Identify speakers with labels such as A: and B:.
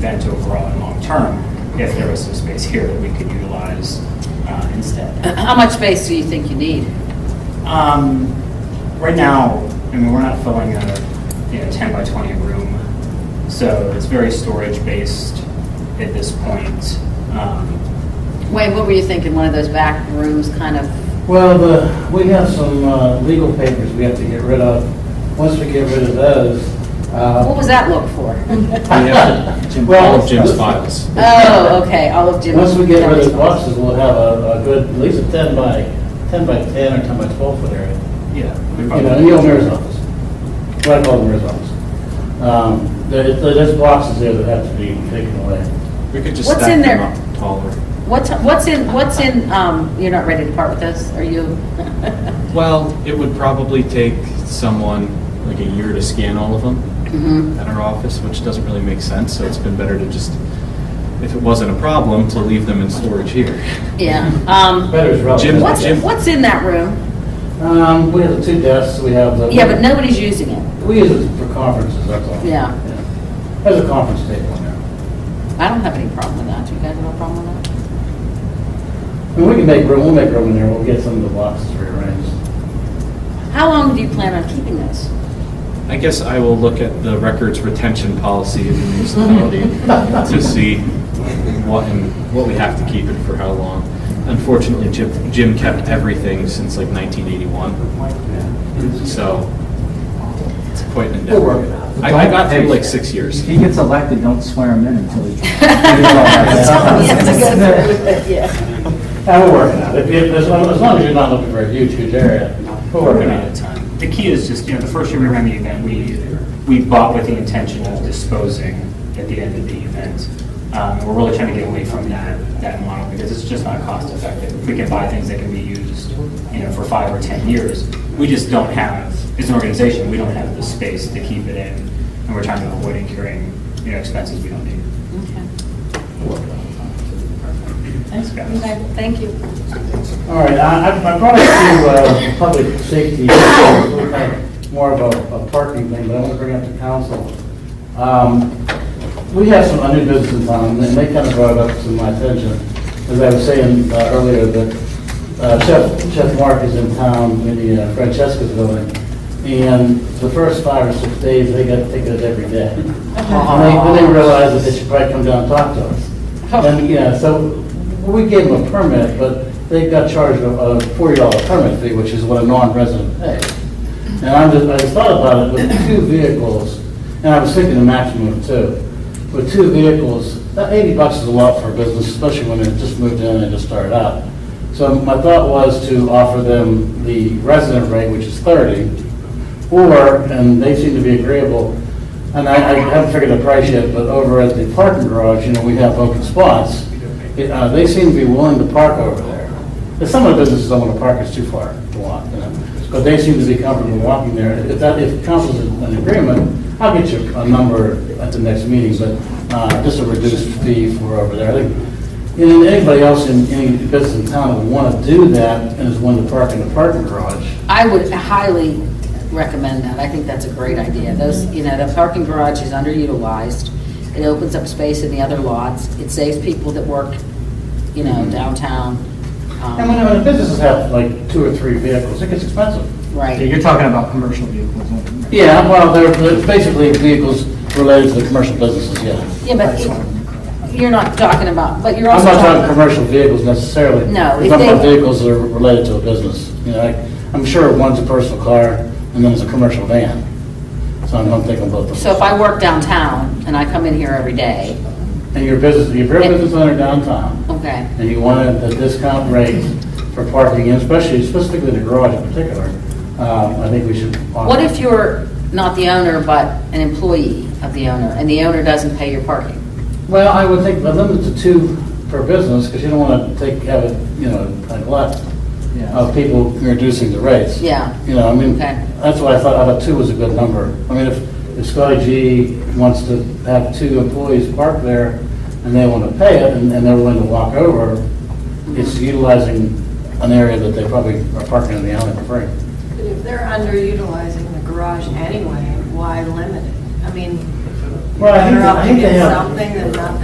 A: that to overall and long-term, if there was some space here that we could utilize uh, instead.
B: How much space do you think you need?
A: Um, Right now, I mean, we're not filling a, you know, 10 by 20 room, so it's very storage-based at this point. Um,
B: Wayne, what were you thinking, one of those back rooms kind of,
C: Well, the, we have some uh, legal papers we have to get rid of. Once we get rid of those,
B: what
C: uh,
B: was that look for?
D: We have Jim-
C: Well-
D: all of Jim's files.
B: Oh, okay, all of Jim's.
C: once we get rid of
B: Jim's
C: the boxes, we'll have a, a good, at least a ten by, ten by ten or ten by twelve foot area.
A: Yeah. we
C: You
A: probably-
C: know, Neil Mayor's office, right above the mayor's office. Um, there, there- there's boxes there that have to be taken away.
D: We could just
B: What's in
D: stack them
B: there?
D: up taller.
B: What's, what's in, what's in, um, you're not ready to part with this, are you?
D: Well, it would probably take someone like a year to scan all of them
B: Mhm.
D: at our office, which doesn't really make sense, so it's been better to just, if it wasn't a problem, to leave them in storage here.
B: Yeah, um,
C: Better is relative.
D: Jim's-
B: what's,
D: Jim-
B: what's in that room?
C: Um, we have the two desks, we have the.
B: Yeah, but nobody's using it.
C: We use it for conferences, that's all.
B: Yeah.
C: There's a conference table in there.
B: I don't have any problem with that, you guys have a problem with that?
C: And we can make room, we'll make room in there, we'll get some of the boxes rearranged.
B: How long do you plan on keeping this?
D: I guess I will look at the records retention policy of the municipality to see what, and what we have to keep and for how long. Unfortunately, Jim, Jim kept everything since like 1981, so it's quite an endeavor.
C: We'll work it out.
D: I I got him like six years.
E: If he gets elected, don't swear him in until he.
B: Someone has to go through with it, yeah.
C: And we're working on it, If- if- as long, as long as you're not looking for a huge, huge area. We're
A: We're
C: working
A: running out
C: on
A: of
C: it.
A: time. The key is just, you know, the first year we ran the event, we, we bought with the intention of disposing at the end of the event. Um, and We're really trying to get away from that, that model because it's just not cost effective. We can buy things that can be used, you know, for five or 10 years. We just don't have, as an organization, we don't have the space to keep it in. And we're trying to avoid incurring, you know, expenses we don't need.
B: Okay.
A: Thanks, guys.
B: Okay, thank you.
C: All right, I, I- I brought it to, uh, public safety, more of a, a parking thing, but I want to bring it up to council. Um, we have some new business in town, and they kind of brought it up to my attention. As I was saying uh, earlier, that uh, Chef, Chef Mark is in town in the uh, Francesca's building, and the first five or six days, they got tickets every day. And they, then they realized that they should probably come down and talk to us. And, yeah, so we gave them a permit, but they got charged a a forty dollar permit fee, which is what a non-resident pays. And I just, I just thought about it, with two vehicles, and I was thinking the maximum of two. With two vehicles, that eighty bucks is a lot for a business, especially when they just moved in and just started out. So my thought was to offer them the resident rate, which is thirty, or, and they seem to be agreeable, and I I haven't figured a price yet, but over at the parking garage, you know, we have open spots. Uh, They seem to be willing to park over there. And Some of the businesses don't want to park, it's too far to walk, you know, but they seem to be comfortable walking there. If that, if council's in agreement, I'll get you a number at the next meeting, but uh, just a reduced fee for over there. I think and then anybody else in any business in town that want to do that and is willing to park in the parking garage,
B: I would highly recommend that. I think that's a great idea. Those, you know, the parking garage is underutilized. It opens up space in the other lots. It saves people that work, you know,
C: Mm-hmm.
B: downtown. Um,
C: And when, when businesses have like two or three vehicles, it gets expensive.
B: Right.
E: You're talking about commercial vehicles. only, right?
C: Yeah, well, they're they're basically vehicles related to the commercial businesses, yeah.
B: Yeah, but it- you're not talking about, but you're
C: I'm
B: also
C: not talking
B: talking.
C: commercial vehicles necessarily.
B: No,
C: I'm
B: if
C: talking about
B: they-
C: vehicles that are related to a business. You know, like, I'm sure one's a personal car and then it's a commercial van. So I'm I'm thinking both of them.
B: So if I work downtown and I come in here every day,
C: And your business, if you're a business owner downtown
B: okay,
C: and you want a a discount rate for parking, and especially specifically the garage in particular, um, I think we should. offer-
B: what if you're not the owner, but an employee of the owner, and the owner doesn't pay your parking?
C: Well, I would think a limit to two per business, because you don't want to take, have it, you know, like a lot
E: Yeah.
C: of people reducing the rates.
B: Yeah.
C: You know, I mean,
B: Okay.
C: that's why I thought, I thought two was a good number. I mean, if if Scotty G wants to have two employees park there, and they want to pay it, and and they're willing to walk over, it's utilizing an area that they probably are parking in the alley for free.
F: But if they're underutilizing the garage anyway, why limit it? I mean,
C: Well, I think,
F: better off
C: I
F: to
C: think they
F: get
C: have,
F: something that